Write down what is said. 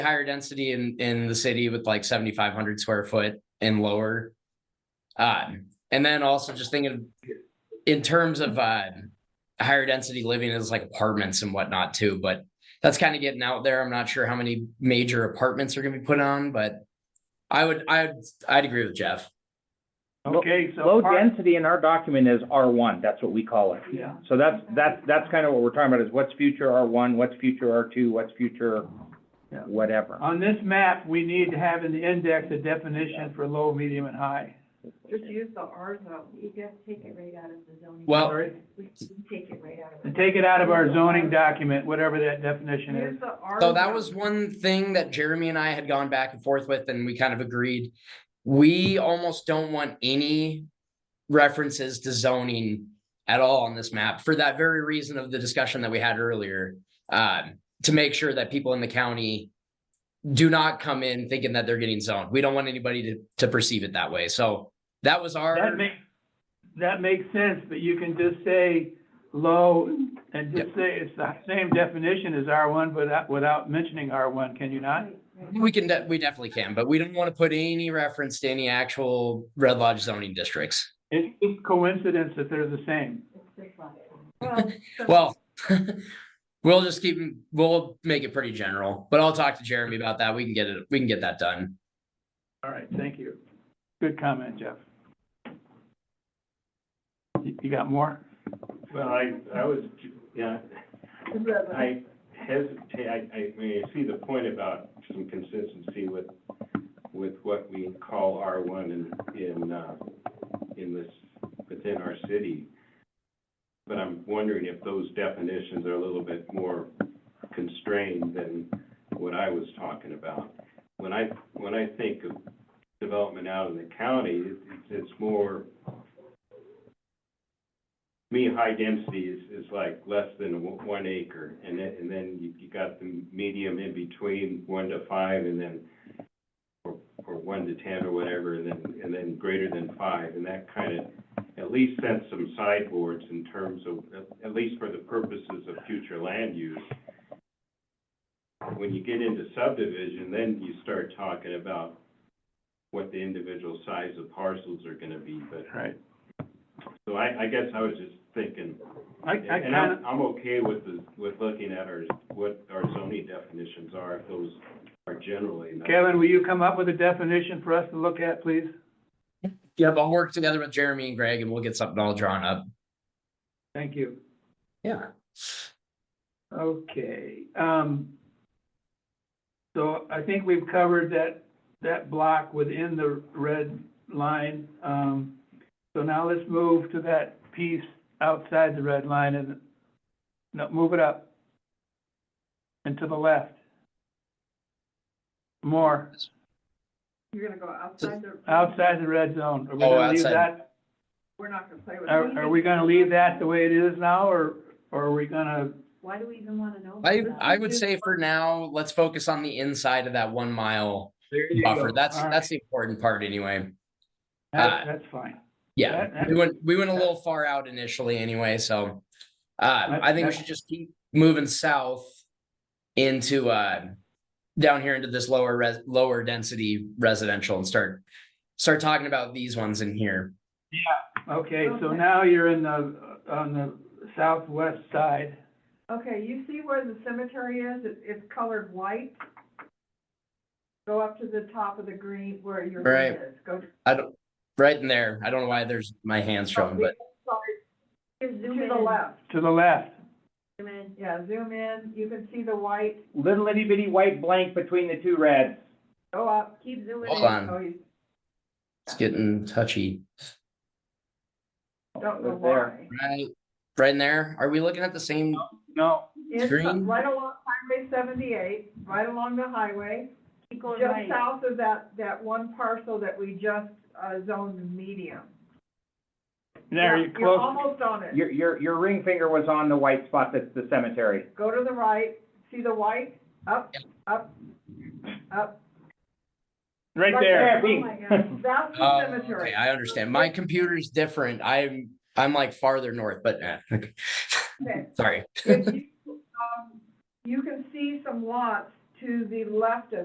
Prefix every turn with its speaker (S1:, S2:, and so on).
S1: higher density in, in the city with like seventy-five hundred square foot and lower. Uh, and then also just thinking in terms of, uh, higher density living is like apartments and whatnot too, but that's kind of getting out there. I'm not sure how many major apartments are gonna be put on, but I would, I, would I'd agree with Jeff.
S2: Lo-
S3: Okay, so.
S2: Low
S3: part-
S2: density in our document is R one, that's what we call it.
S3: Yeah,
S2: So that's, that's, that's kind of what we're talking about, is what's future R one, what's future R two, what's future
S3: Yeah.
S2: whatever.
S3: on this map, we need to have in the index a definition for low, medium, and high.
S4: Just use the R zone, you just take it right out of the zoning.
S1: Well-
S3: Sorry,
S4: We can take it right out of
S3: And
S4: it.
S3: take it out of our zoning document, whatever that definition is.
S4: Use the R.
S1: So that
S4: zone.
S1: was one thing that Jeremy and I had gone back and forth with, and we kind of agreed. We almost don't want any references to zoning at all on this map for that very reason of the discussion that we had earlier. Um, to make sure that people in the county do not come in thinking that they're getting zoned. We don't want anybody to, to perceive it that way. So that was
S3: That
S1: our,
S3: makes, that makes sense, but you can just say low and just say it's the same definition as R one, but that- without mentioning R one, can you not?
S4: Right, right.
S1: we can, de- we definitely can, but we didn't want to put any reference to any actual Red Lodge zoning districts.
S3: It's just coincidence that they're the same.
S4: It's just like- Well, so-
S1: Well, we'll just keep, we'll make it pretty general, but I'll talk to Jeremy about that. We can get it, we can get that done.
S3: All right, thank you. Good comment, Jeff. You you got more?
S5: Well, I, I was, yeah, I hesitate, I, I, I mean, I see the point about some consistency with, with what we call R one in, in, uh, in this, within our city. But I'm wondering if those definitions are a little bit more constrained than what I was talking about. When I, when I think of development out in the county, it's, it's more, me, high density is, is like less than one one acre, and then, and then you, you got the medium in between, one to five, and then, or, or one to ten or whatever, and then, and then greater than five, and that kind of, at least sets some sideboards in terms of, at- at least for the purposes of future land use. When you get into subdivision, then you start talking about what the individual size of parcels are gonna be, but,
S3: Right.
S5: so I, I guess I was just thinking,
S3: I, I
S5: and
S3: kind of,
S5: I'm, I'm okay with the, with looking at our, what our zoning definitions are, if those are generally. not-
S3: Kevin, will you come up with a definition for us to look at, please?
S1: Yep, I'll work together with Jeremy and Greg and we'll get something all drawn up.
S3: Thank you.
S1: Yeah.
S3: Okay, um, so I think we've covered that, that block within the red line. Um, so now let's move to that piece outside the red line and, no, move it up and to the left. More,
S4: You're gonna go outside the.
S3: outside the red zone. Are we
S1: Oh,
S3: gonna leave
S1: outside.
S3: that
S4: We're not gonna play with. it.
S3: Are, are we gonna leave that the way it is now, or, or are we gonna,
S4: Why do we even wanna know? about
S1: I,
S4: that?
S1: I would say for now, let's focus on the inside of that one mile
S3: there you go.
S1: buffer. That's,
S3: All right.
S1: that's the important part anyway.
S3: That- That's fine. That-
S1: Yeah,
S3: that-
S1: we went, we went a little far out initially anyway, so. Uh, I think we
S3: that-
S1: should just keep moving south into, uh, down here into this lower res, lower density residential and start. Start talking about these ones in here.
S3: Okay, so
S4: Okay.
S3: now you're in the, on the southwest side.
S4: Okay, you see where the cemetery is? It, it's colored white. Go up to the top of the green where your
S1: Right.
S4: green is, go to
S1: I don't, right in there. I don't know why there's my hands showing, but
S4: To the left,
S3: To the left,
S4: yeah, zoom in, you can see the white,
S2: Little itty bitty white blank between the two reds.
S4: go up, keep zooming in.
S1: Hold on.
S4: Oh, you
S1: it's getting touchy.
S4: don't know
S2: Right there.
S4: why.
S1: Right, right in there. Are we looking at the same?
S3: no,
S4: It's
S1: Green.
S4: right along Highway seventy-eight, right along the highway,
S6: Keep going
S4: just
S6: right.
S4: south of that, that one parcel that we just, uh, zoned medium.
S3: there,
S4: Yeah,
S3: you're
S4: You're
S3: close,
S4: almost on it,
S2: Your, your, your ring finger was on the white spot that's the cemetery.
S4: go to the right, see the white, up, up, up,
S3: right there.
S2: there,
S4: Oh my
S2: bing.
S4: God, That's
S1: Oh,
S4: the cemetery.
S1: okay, I understand. My computer's different. I'm, I'm like farther north, but, eh, okay,
S4: Okay.
S1: sorry.
S4: If you, um, You can see some lots
S6: to the left of